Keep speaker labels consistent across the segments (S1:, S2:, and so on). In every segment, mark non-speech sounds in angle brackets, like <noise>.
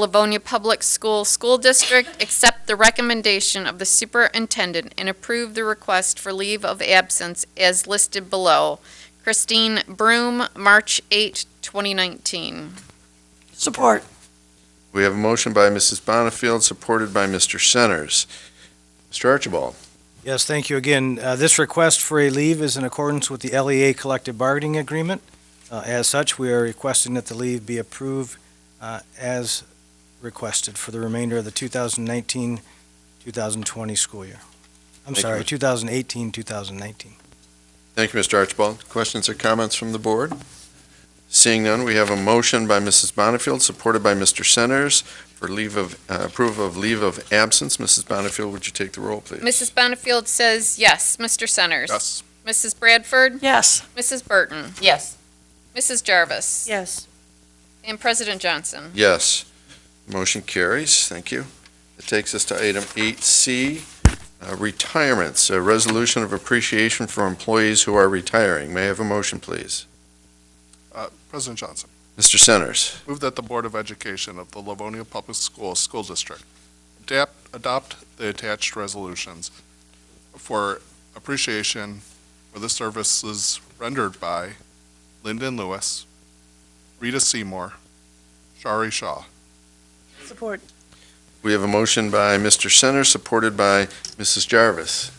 S1: Livonia Public School School District accept the recommendation of the superintendent and approve the request for leave of absence as listed below. Christine Broom, March 8, 2019.
S2: Support.
S3: We have a motion by Mrs. Bonnefield, supported by Mr. Centers. Mr. Archibald.
S4: Yes, thank you again. Uh, This request for a leave is in accordance with the LEA collective bargaining agreement. Uh, As such, we are requesting that the leave be approved uh, as requested for the remainder of the 2019-2020 school year. I'm
S3: Thank you,
S4: sorry,
S3: Mr.
S4: 2018-2019.
S3: Thank you, Mr. Archibald. Questions or comments from the board? Seeing none, we have a motion by Mrs. Bonnefield, supported by Mr. Centers, for leave of, uh, approval of leave of absence. Mrs. Bonnefield, would you take the roll, please?
S1: Mrs. Benefield says yes. Mr. Centers? Mrs. Bradford?
S2: Yes.
S1: Mrs. Burton?
S5: Yes.
S1: Mrs. Jarvis?
S2: Yes.
S1: And President Johnson?
S3: Yes. Motion carries. Thank you. It takes us to item 8C, uh, retirements, a resolution of appreciation for employees who are retiring. May I have a motion, please?
S6: Uh, President Johnson,
S3: Mr. Centers.
S6: move that the Board of Education of the Livonia Public Schools School District adapt, adopt the attached resolutions for appreciation for the services rendered by Lyndon Lewis, Rita Seymour, Shari Shaw.
S2: Support.
S3: We have a motion by Mr. Centers, supported by Mrs. Jarvis.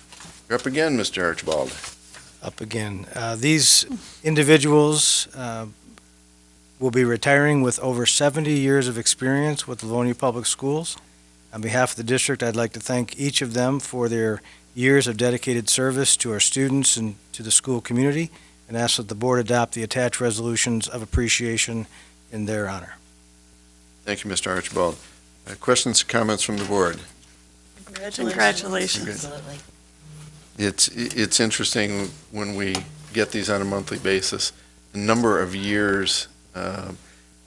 S3: You're up again, Mr. Archibald.
S4: up again. Uh, These individuals uh, will be retiring with over 70 years of experience with Livonia Public Schools. On behalf of the district, I'd like to thank each of them for their years of dedicated service to our students and to the school community, and ask that the board adopt the attached resolutions of appreciation in their honor.
S3: Thank you, Mr. Archibald. Uh, Questions, comments from the board?
S2: Congratulations.
S5: Absolutely.
S3: It's, it's interesting when we get these on a monthly basis, the number of years uh,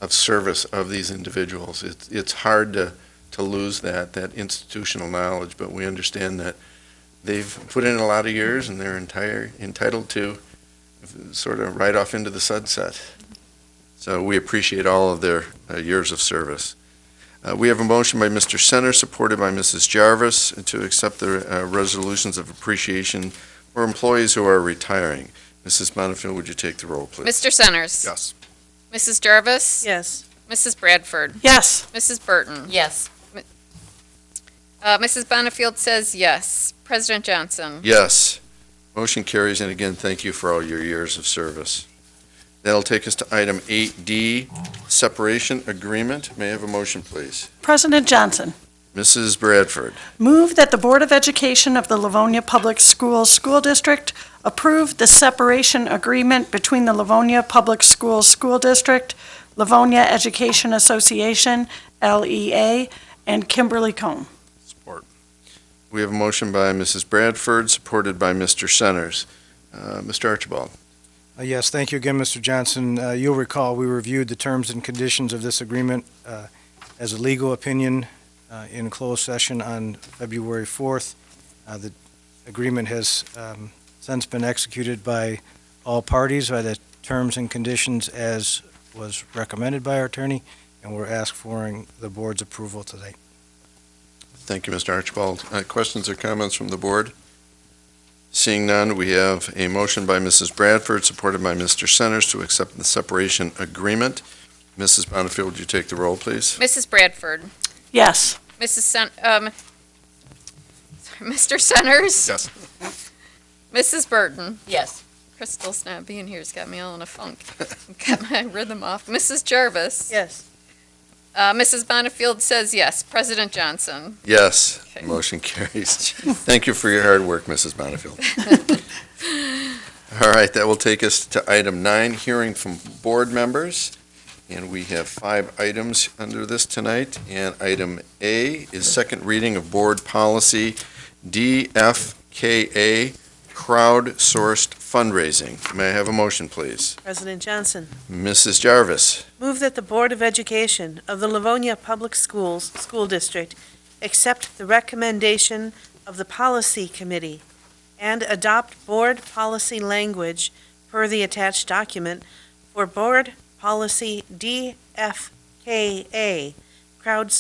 S3: of service of these individuals. It's, it's hard to, to lose that, that institutional knowledge, but we understand that they've put in a lot of years and they're entire, entitled to sort of ride off into the sunset. So we appreciate all of their uh, years of service. Uh, We have a motion by Mr. Center, supported by Mrs. Jarvis, to accept the uh, resolutions of appreciation for employees who are retiring. Mrs. Bonnefield, would you take the roll, please?
S1: Mr. Centers?
S6: Yes.
S1: Mrs. Jarvis?
S2: Yes.
S1: Mrs. Bradford?
S2: Yes.
S1: Mrs. Burton?
S5: Yes.
S1: Uh, Mrs. Benefield says yes. President Johnson?
S3: Yes. Motion carries, and again, thank you for all your years of service. That'll take us to item 8D, separation agreement. May I have a motion, please?
S2: President Johnson,
S3: Mrs. Bradford.
S2: move that the Board of Education of the Livonia Public Schools School District approve the separation agreement between the Livonia Public Schools School District, Livonia Education Association, LEA, and Kimberly Cone.
S6: Support.
S3: We have a motion by Mrs. Bradford, supported by Mr. Centers. Uh, Mr. Archibald.
S4: Uh, Yes, thank you again, Mr. Johnson. Uh, You'll recall, we reviewed the terms and conditions of this agreement uh, as a legal opinion uh, in closed session on February 4th. Uh, The agreement has um, since been executed by all parties by the terms and conditions as was recommended by our attorney, and we're asked for the board's approval today.
S3: Thank you, Mr. Archibald. Uh, Questions or comments from the board? Seeing none, we have a motion by Mrs. Bradford, supported by Mr. Centers, to accept the separation agreement. Mrs. Bonnefield, would you take the roll, please?
S1: Mrs. Bradford?
S2: Yes.
S1: Mrs. Sen- um, sorry, <laughs> Mr. Centers?
S6: Yes.
S1: Mrs. Burton?
S5: Yes.
S1: Crystal's not being here's got me all in a funk. <laughs> got my rhythm off. Mrs. Jarvis?
S2: Yes.
S1: Uh, Mrs. Bonnefield says yes. President Johnson?
S3: Yes,
S1: Okay.
S3: motion carries. Thank you for your hard work, Mrs. Bonnefield. All right, that will take us to item nine, hearing from board members. And we have five items under this tonight. And item A is second reading of board policy DFKA, crowd-sourced fundraising. May I have a motion, please?
S7: President Johnson,
S3: Mrs. Jarvis.
S7: move that the Board of Education of the Livonia Public Schools School District accept the recommendation of the Policy Committee and adopt board policy language per the attached document for Board Policy DFKA, crowd